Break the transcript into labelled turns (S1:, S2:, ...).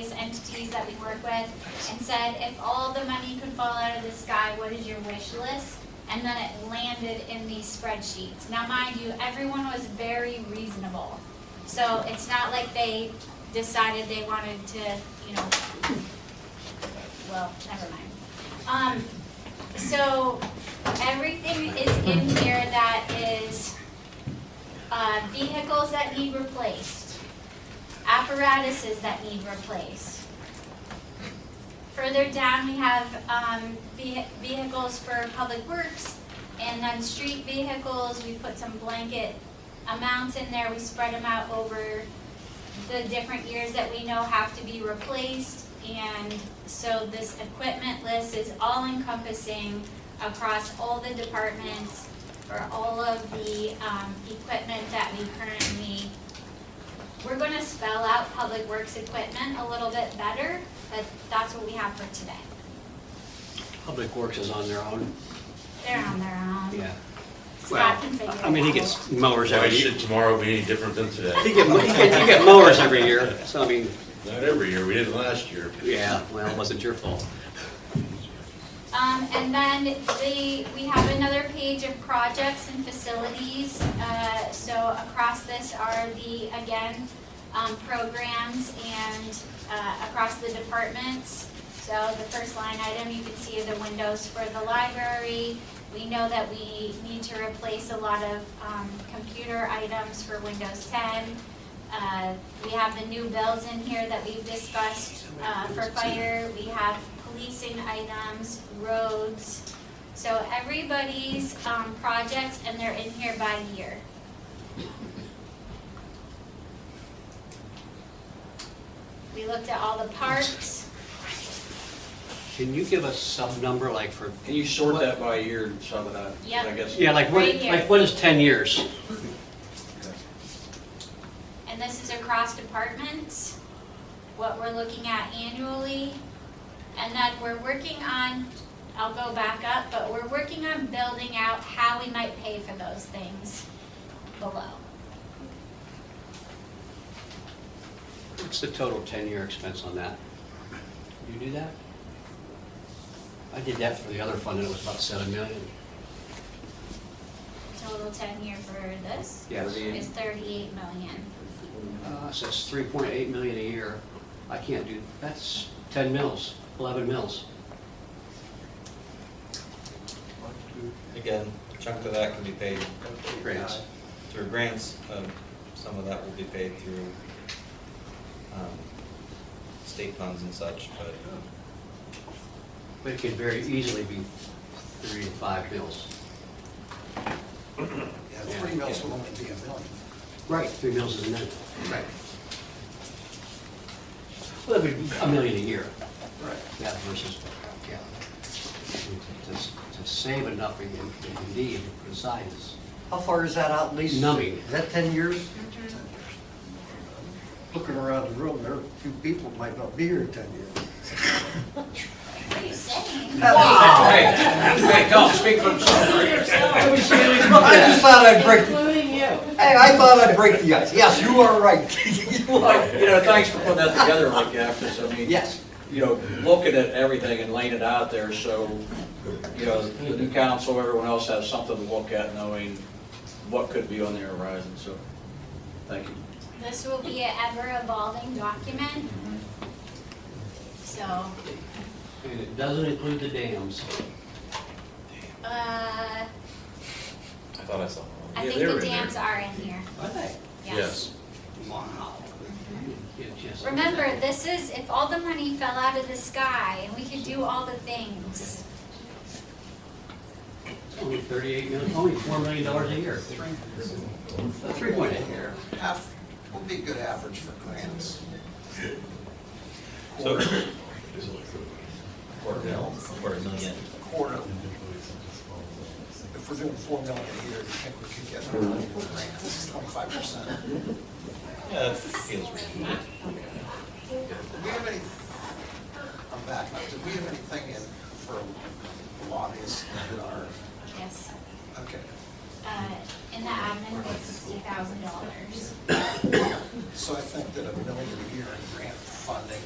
S1: entities that we work with and said, if all the money could fall out of the sky, what is your wish list? And then it landed in these spreadsheets. Now, mind you, everyone was very reasonable. So it's not like they decided they wanted to, you know, well, never mind. Um, so everything is in here that is, uh, vehicles that need replaced, apparatuses that need replaced. Further down, we have, um, vehi- vehicles for public works, and then street vehicles, we put some blanket amounts in there, we spread them out over the different years that we know have to be replaced, and so this equipment list is all encompassing across all the departments for all of the, um, equipment that we currently. We're gonna spell out public works equipment a little bit better, but that's what we have for today.
S2: Public Works is on their own.
S1: They're on their own.
S2: Yeah.
S1: Scott can figure it out.
S2: I mean, he gets mowers
S3: Why
S2: every year.
S3: should tomorrow be any different than
S2: He
S3: today?
S2: get, he get, you get mowers every year, so I mean,
S3: Not every year, we didn't last year.
S2: yeah, well, it wasn't your fault.
S1: Um, and then the, we have another page of projects and facilities. Uh, so across this are the, again, um, programs and, uh, across the departments. So the first line item, you can see the windows for the library. We know that we need to replace a lot of, um, computer items for Windows ten. Uh, we have the new bills in here that we've discussed, uh, for fire, we have policing items, roads. So everybody's, um, projects, and they're in here by year. We looked at all the parks,
S2: Can you give us some number, like for,
S4: Can you sort that by year and some of that?
S1: Yep.
S4: I guess.
S2: yeah, like what,
S1: Right here.
S2: like what is ten years?
S1: and this is across departments, what we're looking at annually. And then we're working on, I'll go back up, but we're working on building out how we might pay for those things below.
S2: What's the total ten-year expense on that? You do that? I did that for the other fund, and it was about seven million.
S1: Total ten-year for this
S2: Yes.
S1: is thirty-eight million.
S2: Uh, so it's three point eight million a year. I can't do, that's ten mils, eleven mils.
S5: Again, a chunk of that can be paid
S2: Grants.
S5: through grants, um, some of that will be paid through um, state funds and such, but
S2: But it could very easily be three to five mils.
S6: Yeah, three mills will only be a million.
S2: Right. Three mils is a minute. Right. Well, that would be a million a year,
S6: Right.
S2: that versus, yeah. To- To to save enough in- in- indeed, besides.
S7: How far is that out, Lisa?
S2: Numbing.
S7: Is that 10 years? Looking around the room, there are a few people might not be here in 10 years.
S1: What are you saying?
S6: Oh.
S4: Hey, hey, don't speak for yourself.
S7: I just thought I'd break, hey,
S8: Including you.
S7: I thought I'd break the ice. Yes, you are right. You are.
S4: Well, You know, thanks for putting that together like that, because I mean.
S7: Yes.
S4: You know, looking at everything and laying it out there, so, you know, the new council, everyone else has something to look at, knowing what could be on their horizon, so, thank you.
S1: This will be an ever-evolving document. So,
S2: And it doesn't include the dams.
S1: uh,
S5: I thought I saw one.
S1: I
S3: Yeah,
S1: think
S3: they were
S1: the
S3: in
S1: dams are in here,
S2: Are they?
S1: yes.
S2: Wow. Yeah, just-
S1: Remember, this is, if all the money fell out of the sky and we could do all the things.
S2: It's Only thirty-eight million, only four million dollars a year. Three point eight.
S6: Here, half, would be a good average for grants.
S5: So,
S6: Quarter mil,
S5: quarter million.
S6: quarter. If we're doing four million a year, you think we could get a million for grants, twenty-five percent? Do
S5: Yeah, that feels reasonable.
S6: we have any, I'm back, now. do we have anything in for lobbyists that are,
S1: Yes,
S6: okay,
S1: uh, in the admin, it's sixty thousand dollars.
S6: so I think that a million a year in grant funding